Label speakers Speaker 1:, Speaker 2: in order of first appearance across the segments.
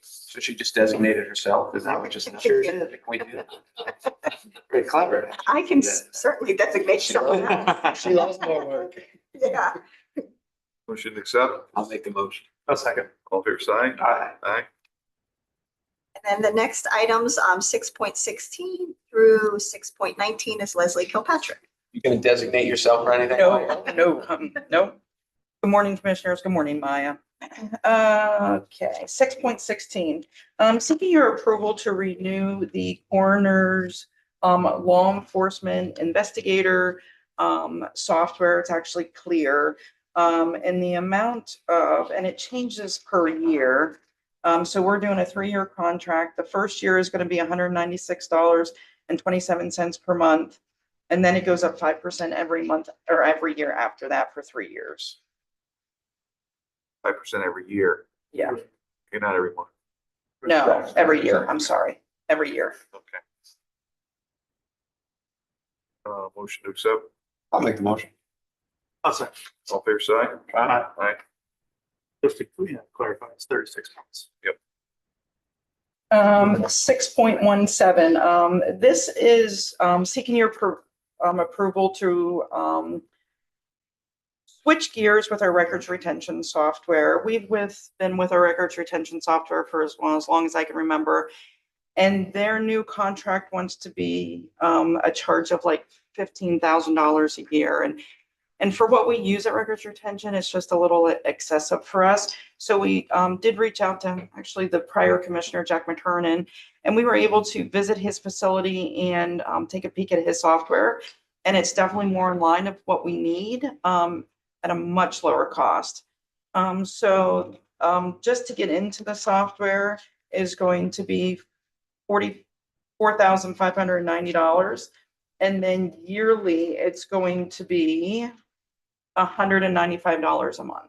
Speaker 1: So she just designated herself, is that what just?
Speaker 2: Sure
Speaker 1: did. We did. Very clever.
Speaker 2: I can s- certainly designate someone else.
Speaker 1: I'll
Speaker 3: more work.
Speaker 2: Yeah.
Speaker 4: Motion to accept,
Speaker 1: make the motion.
Speaker 3: second.
Speaker 4: all fair side,
Speaker 3: Aye.
Speaker 4: aye,
Speaker 2: And then the next items, um, six point sixteen through six point nineteen is Leslie Kilpatrick.
Speaker 1: You gonna designate yourself or anything?
Speaker 5: No, no, um, no. Good morning, Commissioners. Good morning, Maya. Okay, six point sixteen. Um, seeking your approval to renew the coroner's um, law enforcement investigator um, software. It's actually clear. Um, and the amount of, and it changes per year. Um, so we're doing a three-year contract. The first year is going to be hundred ninety-six dollars and twenty-seven cents per month. And then it goes up five percent every month or every year after that for three years.
Speaker 4: five percent every year.
Speaker 5: Yeah.
Speaker 4: Okay, not every month,
Speaker 5: No, every year. I'm sorry, every year.
Speaker 4: okay. Uh, motion to accept,
Speaker 1: I'll make the motion.
Speaker 3: I'll second.
Speaker 4: all fair side,
Speaker 3: Aye.
Speaker 4: aye,
Speaker 3: Just to yeah, clarify, it's thirty-six months.
Speaker 5: Um, six point one seven, um, this is, um, seeking your, appro- um, approval to, um, switch gears with our records retention software. We've with, been with our records retention software for as long, as long as I can remember. And their new contract wants to be, um, a charge of like fifteen thousand dollars a year. And, and for what we use at records retention, it's just a little excessive for us. So we um, did reach out to actually the prior commissioner, Jack McKernan, and we were able to visit his facility and um, take a peek at his software. And it's definitely more in line of what we need um, at a much lower cost. Um, so um, just to get into the software is going to be forty-four thousand five hundred and ninety dollars. And then yearly, it's going to be hundred and ninety-five dollars a month.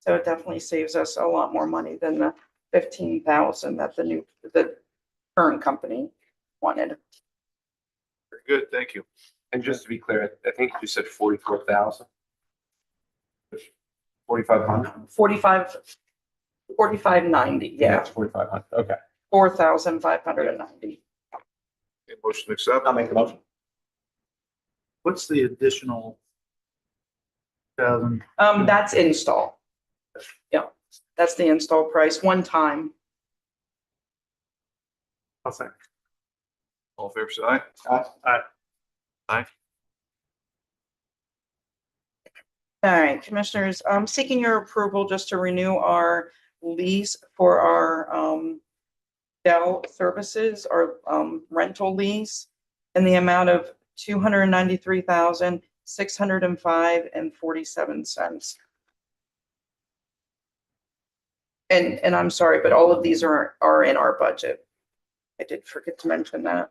Speaker 5: So it definitely saves us a lot more money than the fifteen thousand that the new, the current company wanted.
Speaker 4: very good, thank you.
Speaker 1: And just to be clear, I think you said forty-four thousand. Forty-five hundred?
Speaker 5: Forty-five, forty-five ninety, yeah,
Speaker 1: Forty-five hundred, okay.
Speaker 5: four thousand five hundred and ninety.
Speaker 4: Okay, Motion to accept,
Speaker 1: I'll make the motion.
Speaker 3: What's the additional thousand?
Speaker 5: Um, that's install. Yeah, that's the install price, one time.
Speaker 3: I'll second.
Speaker 4: all fair side,
Speaker 5: All right, commissioners, I'm seeking your approval just to renew our lease for our um Dell services, our um rental lease in the amount of two hundred and ninety-three thousand, six hundred and five and forty-seven cents. And and I'm sorry, but all of these are are in our budget. I did forget to mention that.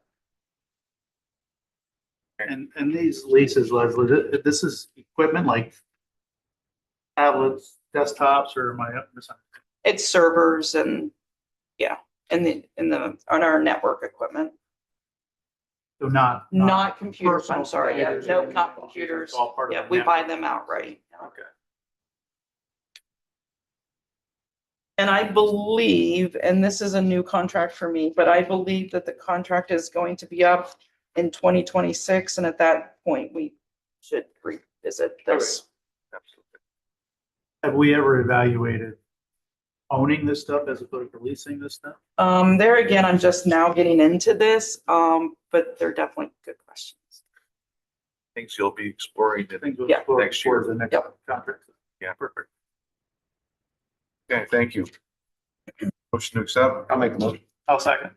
Speaker 3: And, and these leases, Leslie, th- this is equipment like tablets, desktops, or am I up to something?
Speaker 5: It's servers and, yeah, and the, and the, on our network equipment.
Speaker 3: So not.
Speaker 5: Not computers, I'm
Speaker 3: personal
Speaker 5: sorry, yeah,
Speaker 3: computers
Speaker 5: no,
Speaker 3: or anything like
Speaker 5: not
Speaker 3: that.
Speaker 5: computers.
Speaker 3: It's all part of
Speaker 5: Yeah,
Speaker 3: the
Speaker 5: we buy
Speaker 3: network.
Speaker 5: them outright.
Speaker 3: Okay.
Speaker 5: And I believe, and this is a new contract for me, but I believe that the contract is going to be up in twenty twenty-six, and at that point, we should revisit this.
Speaker 4: absolutely,
Speaker 3: Have we ever evaluated owning this stuff as opposed to leasing this stuff?
Speaker 5: Um, there again, I'm just now getting into this, um, but they're definitely good questions.
Speaker 4: things you'll be exploring,
Speaker 3: I
Speaker 4: in-
Speaker 3: think we'll
Speaker 5: Yeah.
Speaker 3: explore
Speaker 4: Next year.
Speaker 3: towards the next
Speaker 5: Yep.
Speaker 3: contract.
Speaker 4: Yeah.
Speaker 3: Perfect.
Speaker 4: okay, thank you. Motion to accept,
Speaker 1: I'll make the motion.
Speaker 3: I'll second.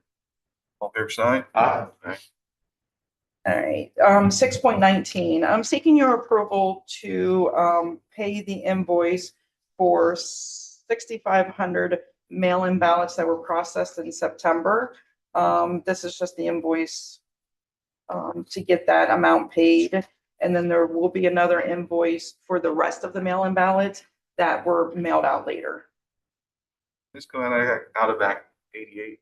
Speaker 4: all fair side,
Speaker 1: Aye.
Speaker 4: aye,
Speaker 5: All right, um, six point nineteen, I'm seeking your approval to, um, pay the invoice for sixty-five hundred mail-in ballots that were processed in September. Um, this is just the invoice um, to get that amount paid. And then there will be another invoice for the rest of the mail-in ballots that were mailed out later.
Speaker 4: this going out of Act eighty-eight.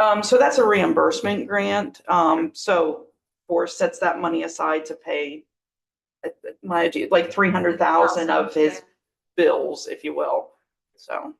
Speaker 5: Um, so that's a reimbursement grant. Um, so Bohr sets that money aside to pay uh, uh, my, like three hundred thousand of his bills, if you will. So